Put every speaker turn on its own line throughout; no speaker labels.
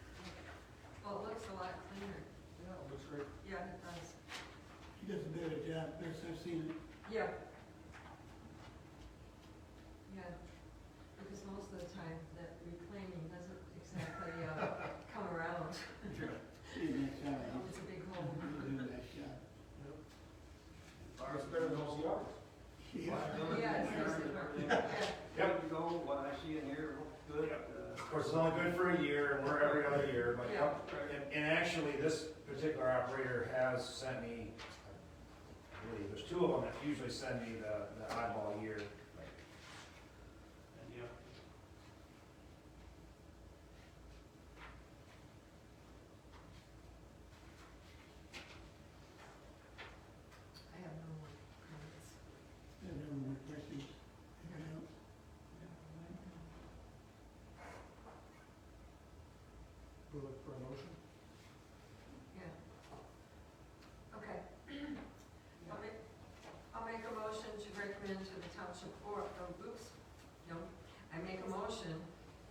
Oh,
great.
Yeah, it does.
She does a better job, best I've seen it.
Yeah. Yeah, because most of the time that reclaiming doesn't exactly, uh, come around.
She did a nice job.
It's a big hole.
She did a nice job.
It's better than those yards.
Yeah.
Yeah, it's nice to work. Yeah,
Yep, we go, what I see in here, looks good.
Of course, it's only good for a year, and we're every other year, but,
Yeah.
and, and actually, this particular operator has sent me, I believe, there's two of them that usually send me the, the oddball year.
Yep.
I have no more comments.
Yeah, no more questions. Anyone else?
We'll look for a motion.
Yeah. Okay. I'll make, I'll make a motion to recommend to the township board, oh, oops, no. I make a motion,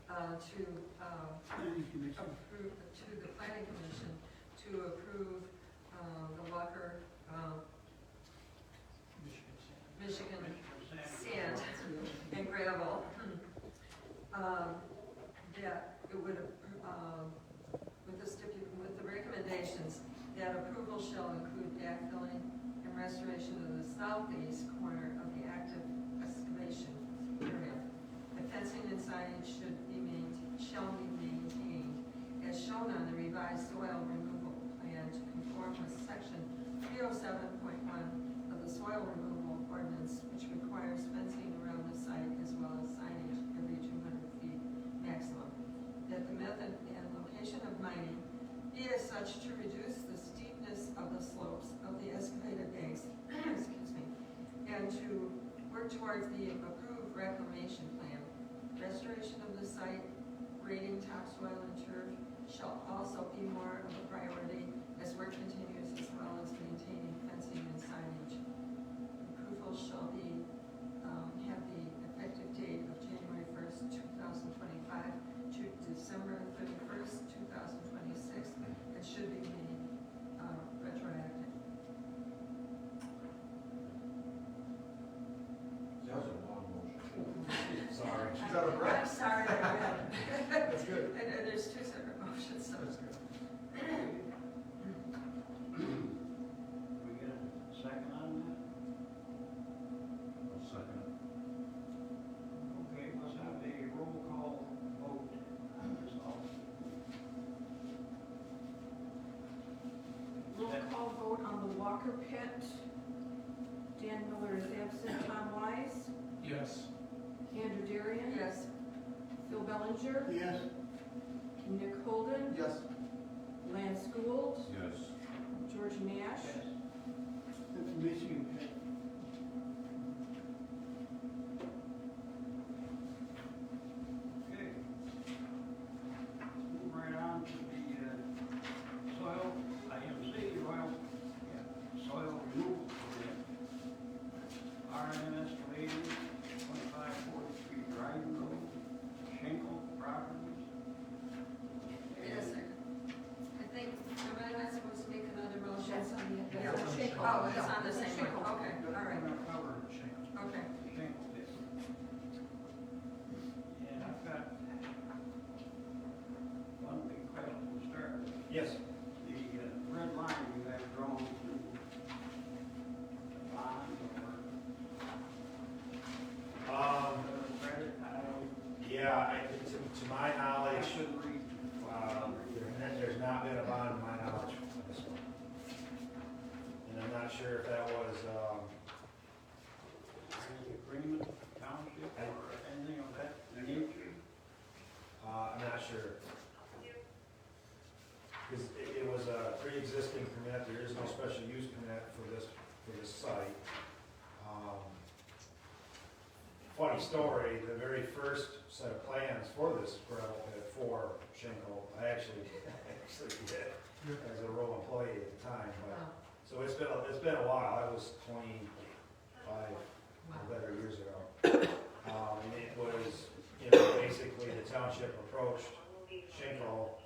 uh, to, uh,
Planning commission.
approve, to the planning commission to approve uh, the Walker, um, Michigan sand and gravel. um, That it would, um, with the stipu, with the recommendations, that approval shall include backfilling and restoration of the southeast corner of the active excavation area. The fencing and signage should be maintained, shall be maintained as shown on the revised soil removal plan to conform with section three oh seven point one of the soil removal ordinance, which requires fencing around the site as well as signage every two hundred feet maximum. That the method and location of mining be as such to reduce the steepness of the slopes of the excavated banks, excuse me, and to work towards the approved reclamation plan. Restoration of the site grading topsoil and turf shall also be more of a priority as work continues as well as maintaining fencing and signage. Approval shall be, um, have the effective date of January first, two thousand twenty-five to December thirty-first, two thousand twenty-six, and should be made, uh, retroactive.
That was a long motion.
Sorry.
She's out of breath.
I'm sorry, I read.
That's good.
And, and there's two separate motions, so.
That's good.
We get a second on
I'll second
that? Okay, let's have a roll call vote on this all.
Roll call vote on the Walker pit. Dan Miller is absent, Tom Wise,
Yes.
Andrew Darian.
Yes,
Phil Bellinger,
Yes,
Nick Holden,
Yes.
Lance Gould,
Yes.
George Nash,
Yes.
that's Michigan.
Okay. Let's Move right on to the uh, soil, IMC, soil, yeah, soil removal program. RMS related, twenty-five forty-three Dryden Road, Schenkel Properties.
wait a second. I think, am I not supposed to make another motion?
That's on the-
Yeah.
that's on Schinkle.
Oh, it's on the same
Schinkle.
one, okay,
And
all right,
We're gonna cover the Schenkel,
okay.
Schenkel bit. And I've got one big question to start with.
Yes.
The uh, red line you have drawn through the bond or
Um,
the credit, I don't,
yeah, I, to, to my
I
knowledge,
should read.
um, there- there's not been a bond in my knowledge on this one. And I'm not sure if that was, um,
Any agreement, township or anything of that nature?
Uh, I'm not sure. Because it, it was a pre-existing permit, there is no special use permit for this, for this site. Um, Funny story, the very first set of plans for this gravel pit for Shingle, I actually, actually did as a rural employee at the time, but,
Oh,
so it's been, a- it's been a while, that was twenty-five
wow.
or better years ago. Um, and it was, you know, basically the township approached Schenkel,